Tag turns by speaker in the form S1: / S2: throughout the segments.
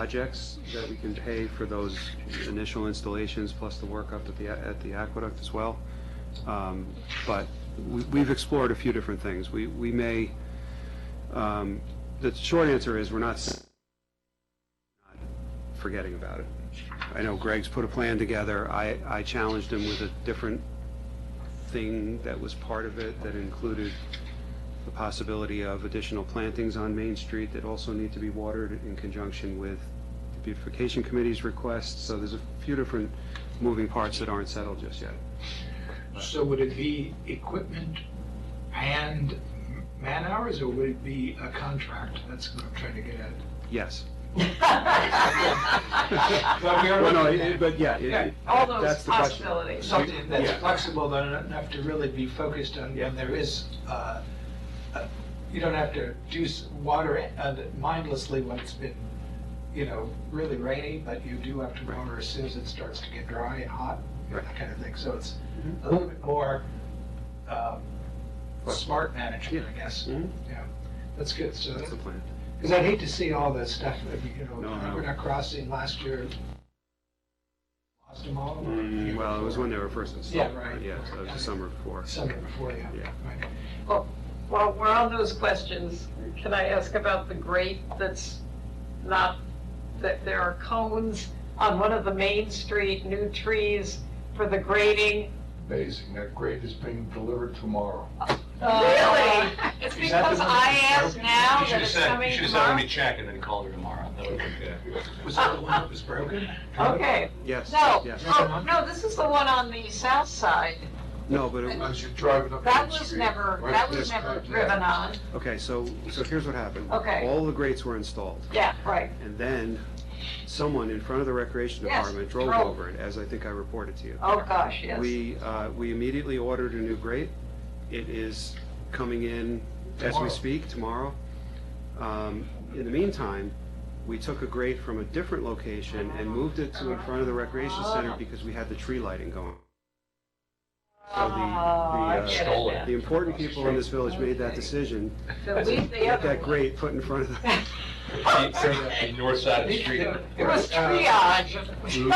S1: projects that we can pay for those initial installations, plus the work up at the, at the aqueduct as well. Um, But we- we've explored a few different things. We, we may, um, the short answer is, we're not s- not forgetting about it. I know Greg's put a plan together. I, I challenged him with a different thing that was part of it that included the possibility of additional plantings on Main Street that also need to be watered in conjunction with the beautification committee's requests. So there's a few different moving parts that aren't settled just yet.
S2: So would it be equipment and man-hours, or would it be a contract? That's what I'm trying to get at.
S1: Yes.
S2: But we are
S1: Well, no,
S2: looking
S1: it-
S2: at-
S1: But yeah, it-
S2: Yeah,
S1: it-
S3: All
S1: that's
S3: those
S1: the question.
S3: possibilities.
S2: Something
S1: Yeah.
S2: that's flexible, that doesn't have to really be focused on, when there is, uh, uh, you don't have to do s- water it, uh, mindlessly when it's been, you know, really rainy, but you do have to
S1: Right.
S2: water as soon as it starts to get dry and hot, you know, that kind of thing. So it's
S1: Mhm.
S2: a little bit more um, smart management, I
S1: Yeah.
S2: guess.
S1: Mhm.
S2: Yeah, that's good. So
S1: That's the plan.
S2: because I'd hate to see all that stuff, that, you know,
S1: No, no.
S2: Aqueduct Crossing last year, lost them all. or the year
S1: Mm, Well, it was
S2: before.
S1: when they were first
S2: Yeah,
S1: installed.
S2: right.
S1: Yeah, so it was the summer before.
S2: Summer before, yeah.
S1: Yeah.
S2: Right.
S3: Well, we're on those questions. Can I ask about the grate that's not, that there are cones on one of the main street, new trees for the grading?
S4: Amazing, that grade is being delivered tomorrow.
S3: Oh, Really? It's
S5: Is that the
S3: because
S5: one-
S3: I asked now
S5: You should
S3: that
S5: have
S3: it's
S5: said, you
S3: coming
S5: should have said, let
S3: tomorrow?
S5: me check, and then called her tomorrow. That would have been good.
S2: Was that the one that was broken?
S3: Okay,
S1: Yes,
S3: no,
S1: yes.
S3: oh, no, this is the one on the south side.
S1: No, but it,
S4: As you're driving up.
S3: That
S4: Main
S3: was
S4: Street,
S3: never,
S4: right
S3: that
S4: this
S3: was never
S4: time, yeah.
S3: driven on.
S1: okay, so, so here's what happened.
S3: Okay.
S1: All the grates were installed.
S3: Yeah, right.
S1: And then someone in front of the recreation
S3: Yes,
S1: department drove
S3: drove.
S1: over it, as I think I reported to you.
S3: Oh, gosh, yes.
S1: We, uh, we immediately ordered a new grate. It is coming in as we
S2: Tomorrow.
S1: speak tomorrow. Um, In the meantime, we took a grate from a different location and moved it to in front of the recreation center because we had the tree lighting going. So the- the,
S3: I
S1: uh,
S3: get it
S5: Stole it.
S3: now.
S1: The important people in this village made that decision,
S3: So leave the
S1: get
S3: other
S1: that
S3: one.
S1: grate put in front of the,
S5: The the north side of the street.
S2: uh,
S3: It was
S1: Exactly.
S3: triage.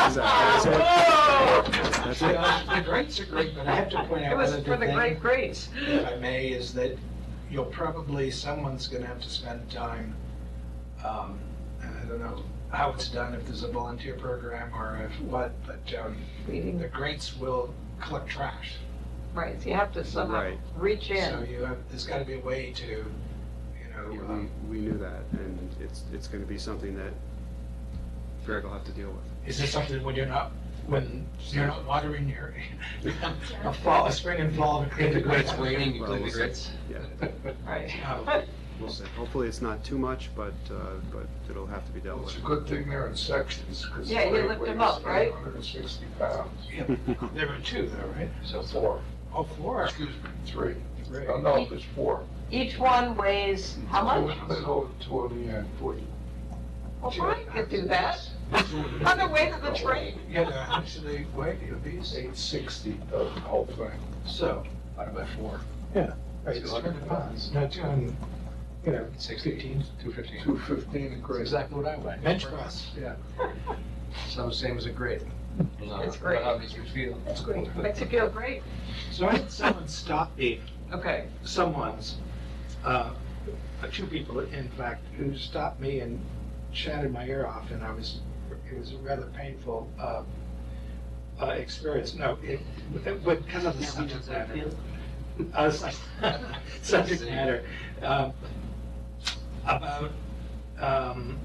S1: that's it.
S2: Uh, The grates are great, but I have to point
S3: It
S2: out
S3: was
S2: one other
S3: for the
S2: thing,
S3: great grace.
S2: if I may, is that you'll probably, someone's gonna have to spend time, um, and I don't know how it's done, if there's a volunteer program or if what, but, um, the grates will collect trash.
S3: Right, so you have to somehow
S1: Right.
S3: reach
S2: So
S3: in.
S2: you have, there's gotta be a way to, you know,
S1: Yeah,
S2: um,
S1: We, we knew that, and it's, it's gonna be something that Greg will have to deal with.
S2: Is this something when you're not, when you're not watering your, a fall, a spring and fall, and clean the grates waiting?
S1: Well, we'll see.
S3: Right.
S2: Yeah.
S1: We'll see. Hopefully, it's not too much, but, uh, but it'll have to be dealt
S4: Well, It's a
S1: with.
S4: good thing they're in sections, because.
S3: Yeah, you lift them up, right?
S4: Hundred and sixty pounds,
S2: There were two though, right?
S4: so four,
S2: Oh, four.
S4: excuse me, three.
S2: Right.
S4: No, no, there's four.
S3: Each one weighs how much?
S4: They hold two in the end, forty.
S3: Well, Brian could do that. On the way to the train.
S2: Yeah, no, how much do they weigh, the obese?
S4: Eight sixty, the whole thing.
S2: So, divided by four.
S4: Yeah.
S2: Right, it's 200 pounds, no, 200, you know, 615, 215.
S4: Two fifteen, and
S2: That's
S4: great.
S2: exactly what I weigh. Bench press. Yeah. So same as a grate.
S3: It's great.
S5: uh, How makes you feel?
S3: It's great. Makes you feel great.
S2: So I had someone stop me
S3: Okay.
S2: someone's, uh, two people, in fact, who stopped me and chatted my ear off, and I was, it was a rather painful, uh, uh, experience, no, it, but because of the subject matter. Uh, Subject matter, um, about, um,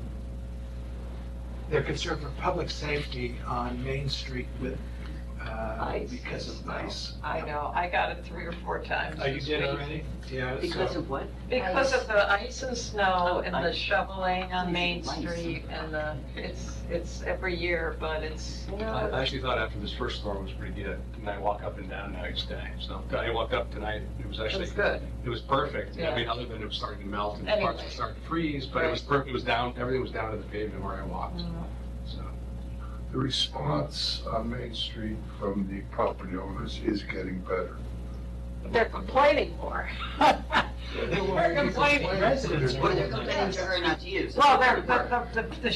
S2: their concern for public safety on Main Street with, uh,
S3: Ice.
S2: because of ice.
S3: I know, I got it three or four times.
S2: Are you
S3: this
S2: did
S3: week.
S2: already? Yeah.
S6: Because of what?
S3: Because of the ice and snow
S6: Oh,
S3: and the
S6: ice.
S3: shoveling on Main
S6: Ice.
S3: Street and the, it's, it's every year, but it's, you
S5: I I
S3: know,
S5: actually thought after this first storm was pretty good, and I walk up and down now each day, so, I walked up tonight, it was
S3: it
S5: actually.
S3: was good.
S5: It was perfect,
S3: Yeah.
S5: I mean, other than it was starting to melt and parts
S3: Anyway.
S5: were starting to freeze, but it was perfect, it was down, everything was down to the pavement where I walked, so.
S4: The response on Main Street from the property owners is getting better.
S3: They're complaining more. They're complaining.
S2: Residents are-
S6: Well, they're complaining to her not to use.
S3: Well, they're, the, the, the